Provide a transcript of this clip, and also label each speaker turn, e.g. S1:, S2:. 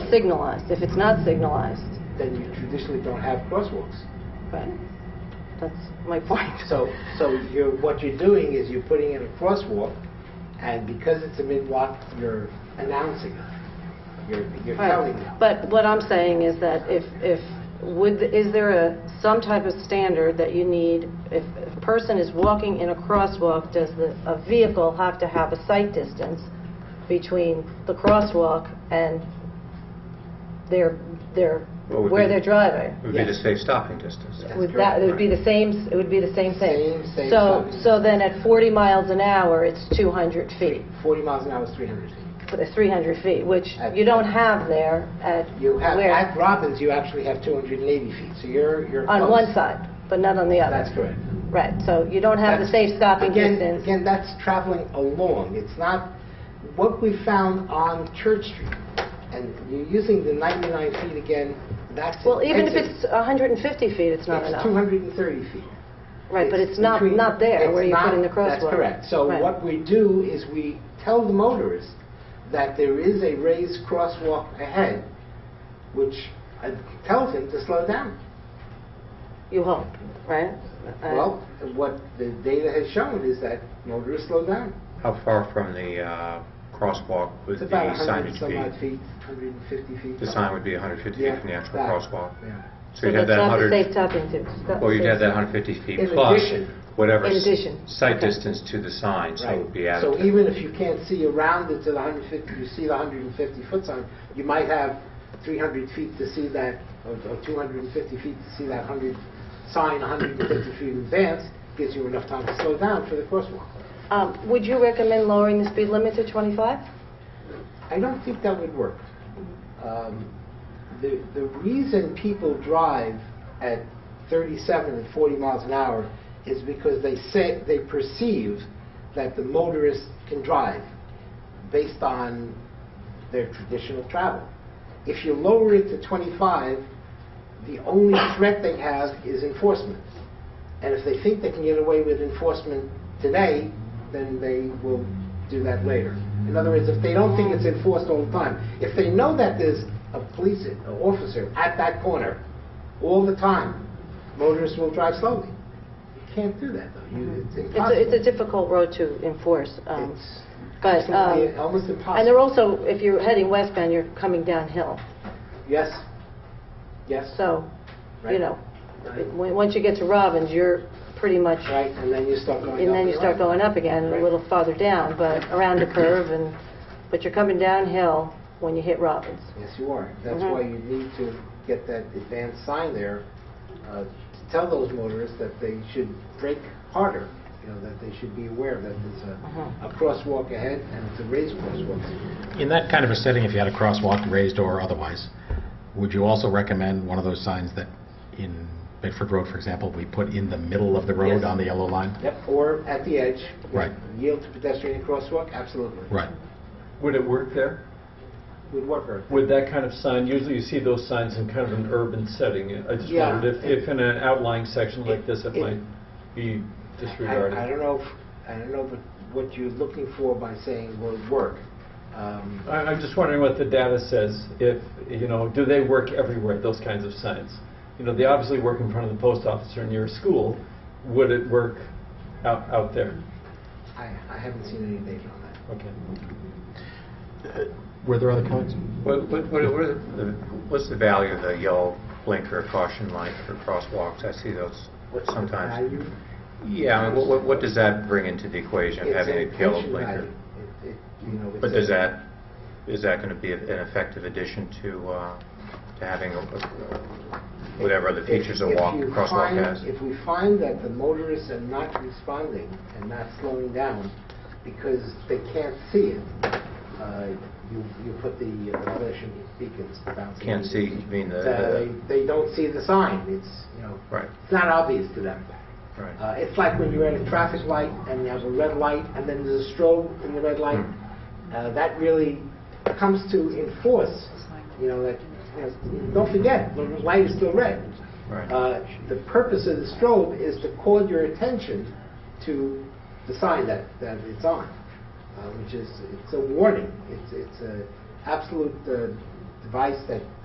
S1: signalized. If it's not signalized,
S2: then you traditionally don't have crosswalks.
S1: but that's my point.
S2: So, so you're, what you're doing is you're putting in a crosswalk, and because it's a mid-walk, you're announcing it. You're, you're telling
S1: Right,
S2: them.
S1: but what I'm saying is that if, if, would, is there a, some type of standard that you need? If if a person is walking in a crosswalk, does the, a vehicle have to have a sight distance between the crosswalk and their, their,
S3: Well, would
S1: where
S3: be-
S1: they're driving?
S3: It would be the
S2: Yes.
S3: safe stopping distance.
S2: Yes.
S1: Would that, it would be the same, it would be the same thing?
S2: Same- same
S1: So,
S2: size.
S1: so then at 40 miles an hour, it's 200 feet,
S2: 40 miles an hour is 300 feet.
S1: uh, 300 feet, which
S2: At-
S1: you don't have there at
S2: You have,
S1: where?
S2: at Robbins, you actually have 280 feet, so you're, you're
S1: On
S2: close.
S1: one side, but not on the
S2: That's
S1: other.
S2: correct.
S1: Right, so you don't have the
S2: That's-
S1: safe stopping
S2: again-
S1: distance.
S2: Again, that's traveling along. It's not, what we found on Church Street, and you're using the 99 feet again, that's...
S1: Well, even if
S2: intensive.
S1: it's 150 feet, it's not
S2: It's
S1: enough.
S2: 230 feet.
S1: Right, but it's not,
S2: between-
S1: not there
S2: it's
S1: where you're
S2: not-
S1: putting the crosswalk.
S2: That's correct. So
S1: Right.
S2: what we do is we tell the motorists that there is a raised crosswalk ahead, which uh, tells them to slow down.
S1: You hope, right? Uh,
S2: Well, what the data has shown is that motorists slow down.
S3: How far from the uh, crosswalk would
S2: It's
S3: the
S2: about 100
S3: signage
S2: some odd
S3: be?
S2: feet, 150 feet.
S3: The sign would be 150
S2: Yeah,
S3: feet from the actual
S2: that,
S3: crosswalk.
S2: yeah.
S1: So
S3: you'd have
S1: that's
S3: that
S1: not the
S3: 100
S1: safe stopping distance. that's
S3: Well, you'd
S1: the-
S3: have that 150 feet
S2: In
S3: plus
S2: addition.
S3: whatever
S1: In
S3: s-
S1: addition.
S3: sight
S1: Okay.
S3: distance to the sign, so it would be
S2: Right. So
S3: added.
S2: even if you can't see around it to the 150, you see the 150-foot sign, you might have 300 feet to see that, or or 250 feet to see that 100, sign 150 feet in advance, gives you enough time to slow down for the crosswalk.
S1: Um, Would you recommend lowering the speed limit to 25?
S2: I don't think that would work. Um, The the reason people drive at 37 and 40 miles an hour is because they say, they perceive that the motorist can drive based on their traditional travel. If you lower it to 25, the only threat they have is enforcement. And if they think they can get away with enforcement today, then they will do that later. In other words, if they don't think it's enforced all the time, if they know that there's a police officer at that corner all the time, motorists will drive slowly. You can't do that, though. You- It's
S1: It's a- It's
S2: impossible.
S1: a difficult road to enforce, um,
S2: It's
S1: but,
S2: absolutely
S1: um,
S2: almost impossible.
S1: and they're also, if you're heading westbound, you're coming downhill,
S2: Yes, yes.
S1: so, you
S2: Right.
S1: know, When- Once you get to Robbins, you're pretty much,
S2: Right, and then you start going up.
S1: and then you start
S2: up.
S1: going up again, and a
S2: Right.
S1: little farther down, but around the curve, and, but you're coming downhill when you hit Robbins.
S2: Yes, you are. That's
S1: Mhm.
S2: why you need to get that advanced sign there uh, to tell those motorists that they should brake harder, you know, that they should be aware that there's
S1: Mm-hmm.
S2: a- a crosswalk ahead and it's a raised crosswalk.
S4: In that kind of a setting, if you had a crosswalk, raised or otherwise, would you also recommend one of those signs that in Bedford Road, for example, we put in the middle of the
S2: Yes.
S4: road on the yellow line?
S2: Yep, or at the edge. you know,
S4: Right.
S2: Yield to pedestrian crosswalk, absolutely.
S4: Right.
S5: Would it work there?
S2: Would work. or-
S5: Would that kind of sign, usually you see those signs in kind of an urban setting. I just
S2: Yeah.
S5: wondered if, if in an outlying section like this, it
S2: It-
S5: might be disregarded.
S2: I I don't know, if- I don't know but what you're looking for by saying would work. Um,
S5: I- I'm just wondering what the data says, if, you know, do they work everywhere, those kinds of signs? You know, they obviously work in front of the post office or near a school. Would it work out, out there?
S2: I I haven't seen any data on that.
S5: Okay.
S4: Were there other comments?
S3: What- what- what- what are the- What's the value of the yellow blinker caution light for crosswalks? I see those
S2: What's the
S3: sometimes.
S2: value?
S3: Yeah, I mean, what- what what does that bring into the equation,
S2: It's
S3: having
S2: an
S3: a yellow
S2: pension
S3: blinker?
S2: value. It- it, you know,
S3: But
S2: it's a-
S3: does that, is that going to be an effective addition to, uh, to having a- a- whatever other features a
S2: If- if
S3: walk,
S2: you
S3: crosswalk
S2: find-
S3: has?
S2: If we find that the motorists are not responding and not slowing down because they can't see it, uh, you, you put the uh, flashing beacons bouncing.
S3: Can't see, you mean the-
S2: They, they don't see the sign, it's, you know,
S3: Right,
S2: it's not obvious to them.
S3: right.
S2: Uh, It's like when you're at a traffic light and there's a red light and then there's a strobe in the red light. Uh, That really comes to enforce, you know, that, you know, don't forget, the light is still red.
S3: Right.
S2: Uh, The purpose of the strobe is to call your attention to the sign that, that it's on, uh, which is, it's a warning. It's, it's an absolute uh, advice that